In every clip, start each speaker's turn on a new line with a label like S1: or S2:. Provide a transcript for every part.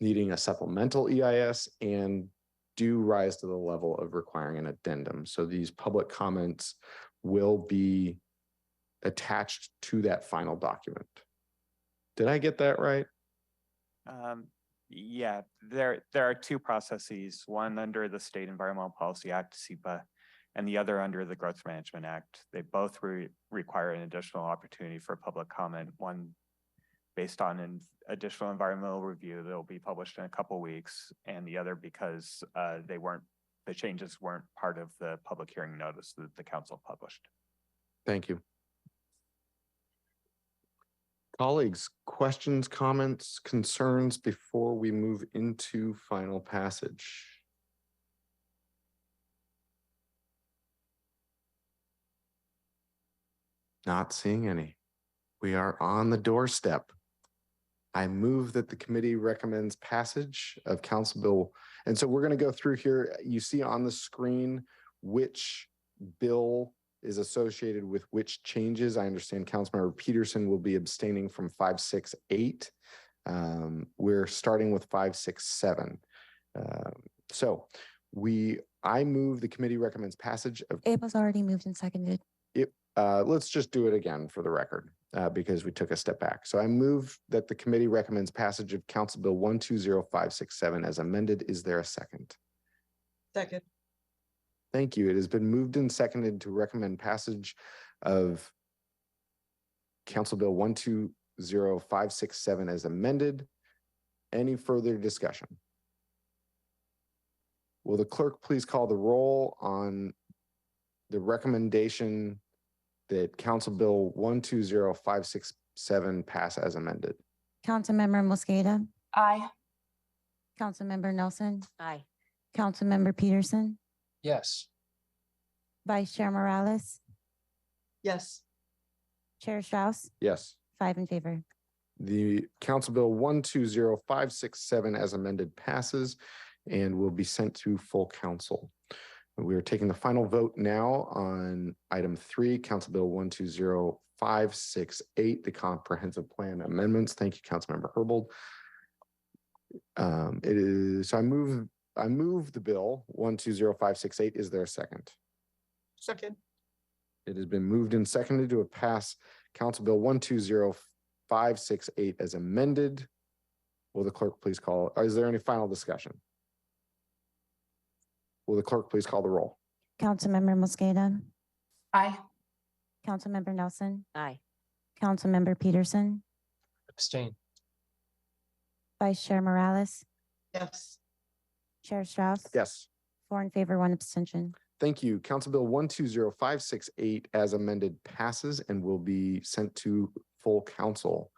S1: needing a supplemental EIS and do rise to the level of requiring an addendum. So these public comments will be attached to that final document. Did I get that right?
S2: Um, yeah, there, there are two processes, one under the State Environmental Policy Act, SEPA, and the other under the Growth Management Act. They both re- require an additional opportunity for public comment, one based on an additional environmental review that'll be published in a couple weeks, and the other because, uh, they weren't, the changes weren't part of the public hearing notice that the council published.
S1: Thank you. Colleagues, questions, comments, concerns before we move into final passage? Not seeing any. We are on the doorstep. I move that the committee recommends passage of Council Bill. And so we're going to go through here. You see on the screen which bill is associated with which changes. I understand Councilmember Peterson will be abstaining from five, six, eight. Um, we're starting with five, six, seven. Um, so we, I move the committee recommends passage of,
S3: It was already moved and seconded.
S1: uh, let's just do it again for the record, uh, because we took a step back. So I move that the committee recommends passage of Council Bill one, two, zero, five, six, seven as amended. Is there a second?
S4: Second,
S1: Thank you. It has been moved and seconded to recommend passage of Council Bill one, two, zero, five, six, seven as amended. Any further discussion? Will the clerk please call the roll on the recommendation that Council Bill one, two, zero, five, six, seven pass as amended?
S3: Councilmember Mosqueda,
S5: Aye.
S3: Councilmember Nelson,
S5: Aye.
S3: Councilmember Peterson,
S6: yes,
S3: Vice Chair Morales,
S4: yes,
S3: Chair Strauss,
S1: Yes.
S3: five in favor.
S1: The Council Bill one two zero five six seven as amended passes and will be sent to full council. We are taking the final vote now on item three, Council Bill one two zero five six eight, the comprehensive plan amendments. Thank you, Councilmember Herbold. Um, it is, so I move, I move the bill one two zero five six eight. Is there a second?
S4: second,
S1: It has been moved and seconded to pass Council Bill one two zero five six eight as amended. Will the clerk please call, or is there any final discussion? Will the clerk please call the roll?
S3: Councilmember Mosqueda,
S5: Aye.
S3: Councilmember Nelson,
S5: Aye.
S3: Councilmember Peterson,
S6: abstain,
S3: Vice Chair Morales,
S4: yes,
S3: Chair Strauss.
S1: Yes.
S3: Four in favor, one abstention.
S1: Thank you. Council Bill one two zero five six eight as amended passes and will be sent to full council.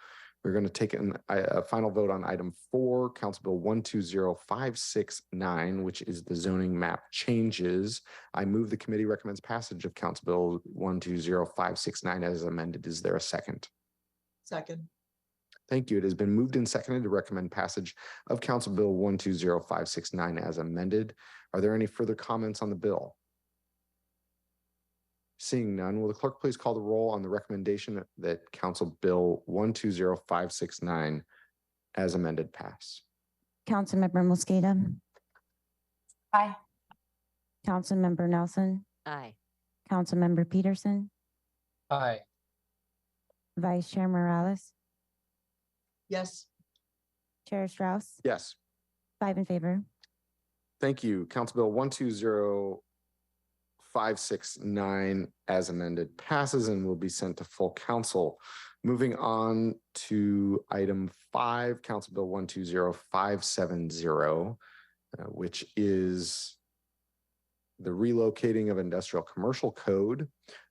S1: We're going to take an, a, a final vote on item four, Council Bill one two zero five six nine, which is the zoning map changes. I move the committee recommends passage of Council Bill one two zero five six nine as amended. Is there a second?
S4: second,
S1: Thank you. It has been moved and seconded to recommend passage of Council Bill one two zero five six nine as amended. Are there any further comments on the bill? Seeing none, will the clerk please call the roll on the recommendation that Council Bill one two zero five six nine as amended pass?
S3: Councilmember Mosqueda,
S5: Aye.
S3: Councilmember Nelson,
S5: Aye.
S3: Councilmember Peterson,
S6: aye,
S3: Vice Chair Morales,
S4: yes,
S3: Chair Strauss,
S1: Yes.
S3: five in favor.
S1: Thank you. Council Bill one two zero five six nine as amended passes and will be sent to full council. Moving on to item five, Council Bill one two zero five seven zero, uh, which is the relocating of industrial commercial code.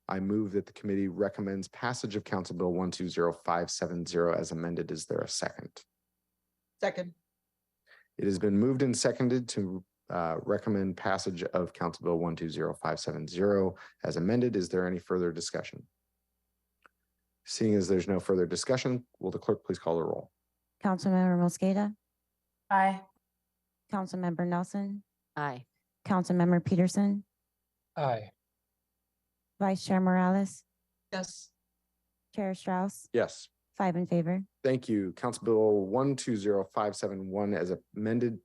S1: I move that the committee recommends passage of Council Bill one two zero five seven zero as amended. Is there a second?
S4: second,
S1: It has been moved and seconded to uh, recommend passage of Council Bill one two zero five seven zero as amended. Is there any further discussion? Seeing as there's no further discussion, will the clerk please call the roll?
S3: Councilmember Mosqueda,
S5: Aye.
S3: Councilmember Nelson,
S5: Aye.
S3: Councilmember Peterson,
S6: aye,
S3: Vice Chair Morales,
S4: yes,
S3: Chair Strauss,
S1: Yes.
S3: Five in favor.
S1: Thank you. Council Bill 120571 as amended